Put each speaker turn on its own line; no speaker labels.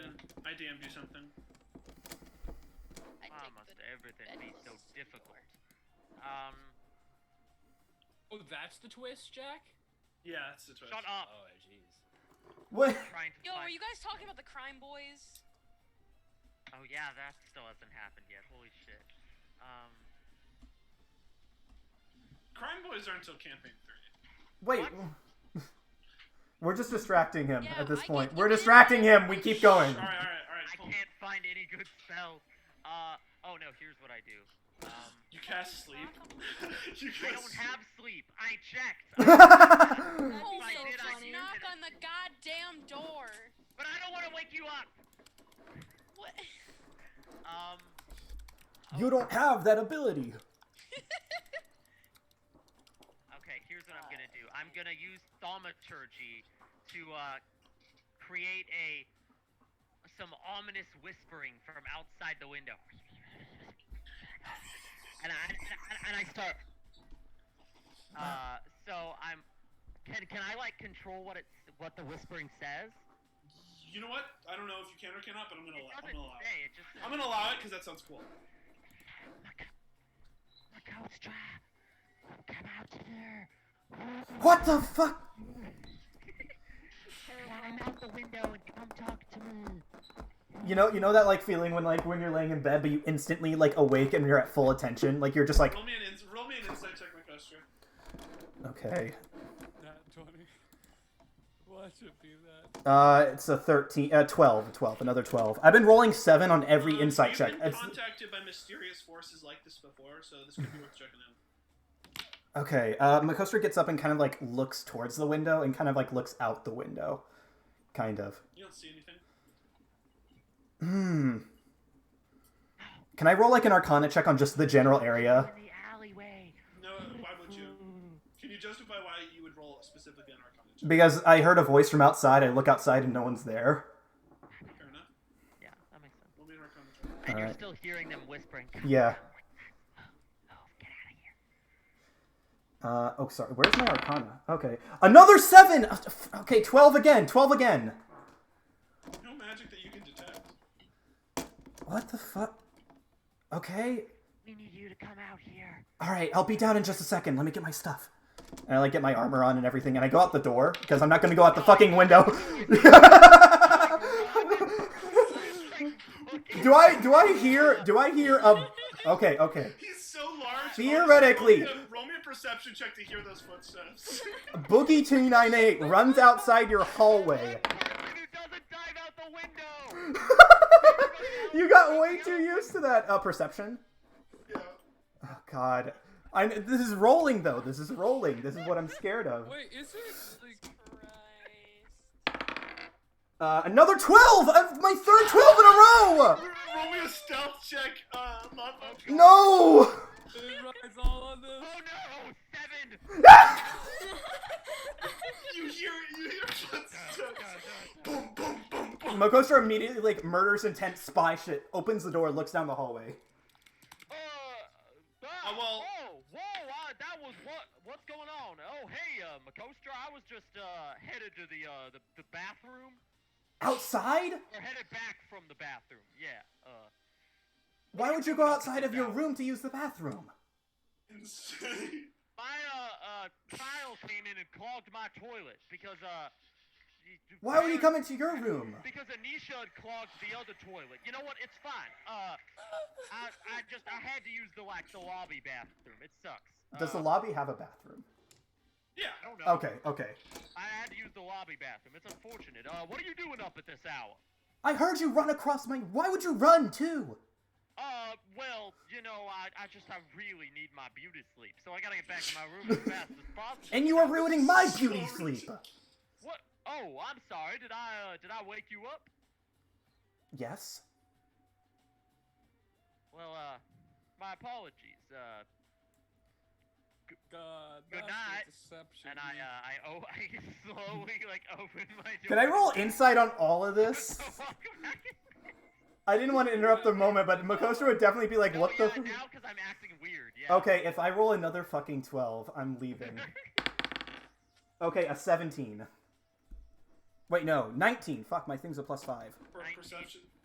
DM'd you something.
I
Why
take
must
the
everything
bed
be so
closest to the
difficult?
door.
Um,
Oh, that's the twist, Jack?
Yeah, that's the twist.
shut
Oh,
up.
jeez.
What?
Trying to
Yo,
find-
were you guys talking about the crime boys?
Oh yeah, that still hasn't happened yet. Holy shit. Um,
Crime Boys aren't till campaign three.
Wait. We're just distracting him
Yeah,
at this
I
point.
get-
We're distracting him. We keep going.
All right, all right, all right.
I
Cool.
can't find any good spells. Uh, oh no, here's what I do. Um,
You cast sleep. you cast
I don't have sleep. I checked.
That'd
Oh,
be
I
so
did, I
funny.
did.
Knock on the goddamn door.
but I don't want to wake you up.
What?
Um,
you don't have that ability.
okay, here's what I'm gonna do. I'm gonna use thaumaturgy to uh, create a some ominous whispering from outside the window. And I and I, and I start. Uh, so I'm. Can can I like control what it's what the whispering says?
You know what? I don't know if you can or cannot, but I'm gonna
It
allow. I'm
doesn't
gonna allow.
say.
It.
It just says,
I'm gonna allow it because that sounds cool.
Look, look how it's dry. Come out here.
What the fuck?
Climb out the window and come talk to me.
You know, you know that like feeling when like when you're laying in bed, but you instantly like awake and you're at full attention. Like you're just like,
Roll me an ins- roll me an insight check, my customer.
okay.
That 20. Why should be that?
Uh, it's a thirteen, uh, twelve, twelve, another twelve. I've been rolling seven on every
Um,
insight
you've
check.
Been
It's-
contacted by mysterious forces like this before, so this could be worth checking out.
Okay, uh, Makostra gets up and kind of like looks towards the window and kind of like looks out the window. Kind of.
You don't see anything.
Hmm. Can I roll like an arcana check on just the general area?
In the alleyway.
No, why would you? Can you justify why you would roll specifically on Arcana check?
Because I heard a voice from outside, I look outside and no one's there.
Fair enough.
Yeah, that makes sense.
Roll me an Arcana check.
And you're
Alright.
still hearing them whispering.
Yeah.
Oh, oh, get out of here.
Uh, oh, sorry. Where's my arcana? Okay. Another seven! Uh, f- Okay, 12 again, 12 again.
No magic that you can detect.
What the fuck? Okay.
We need you to come out here.
Alright, I'll be down in just a second. Let me get my stuff. And I like get my armor on and everything, and I go out the door, because I'm not gonna go out the fucking window. do I do I hear do I hear a Okay, okay.
He's so large.
Theoretically.
Roll me, a, roll me a perception check to hear those footsteps.
Boogie two nine eight runs outside your hallway.
Person who doesn't dive out the window.
you got way too used to that uh, perception.
yeah.
Oh God, I this is rolling though. This is rolling. This is what I'm scared of.
Wait, is it like.
Christ.
Uh, another twelve. Uh, my third twelve in a row.
Roll me a stealth check, uh, Mamba.
No.
It rides all on this.
Oh no, seven. Uh,
You hear, you hear footsteps. boom, boom, boom, boom.
Makostra immediately like murders intent spy shit. Opens the door, looks down the hallway.
Uh, uh,
Uh, well-
whoa, whoa, uh, that was what? What's going on? Oh, hey, uh, Makostra, I was just uh headed to the uh the, the bathroom,
Outside?
or headed back from the bathroom. Yeah. Uh,
Why would you go outside of your room to use the bathroom?
Insane.
my uh uh tile came in and clogged my toilet because uh. y- y-
Why would he
Baron-
come into your room?
Because Anisha had clogged the other toilet. You know what? It's fine. Uh, I I just I had to use the like the lobby bathroom. It sucks.
Does the
Uh,
lobby have a bathroom?
Yeah.
I don't know.
Okay, okay.
I had to use the lobby bathroom. It's unfortunate. Uh, what are you doing up at this hour?
I heard you run across my. Why would you run too?
Uh, well, you know, I, I just, I really need my beauty sleep, so I gotta get back to my room as fast as possible.
And you are ruining my beauty sleep.
What? Oh, I'm sorry. Did I, uh, did I wake you up?
Yes.
Well, uh, my apologies. Uh,
God.
Good
that's a
night.
Deception.
and I, uh, I, oh, I slowly, like, open my door.
Can I roll insight on all of this?
Walk back in.
I didn't want to interrupt the moment, but Makostra would definitely be like,
No,
"What the?"
yeah, now because I'm acting weird, yeah.
Okay, if I roll another fucking twelve, I'm leaving. Okay, a seventeen. Wait, no, nineteen. Fuck, my thing's a plus five.
For
Nineteen.
perception.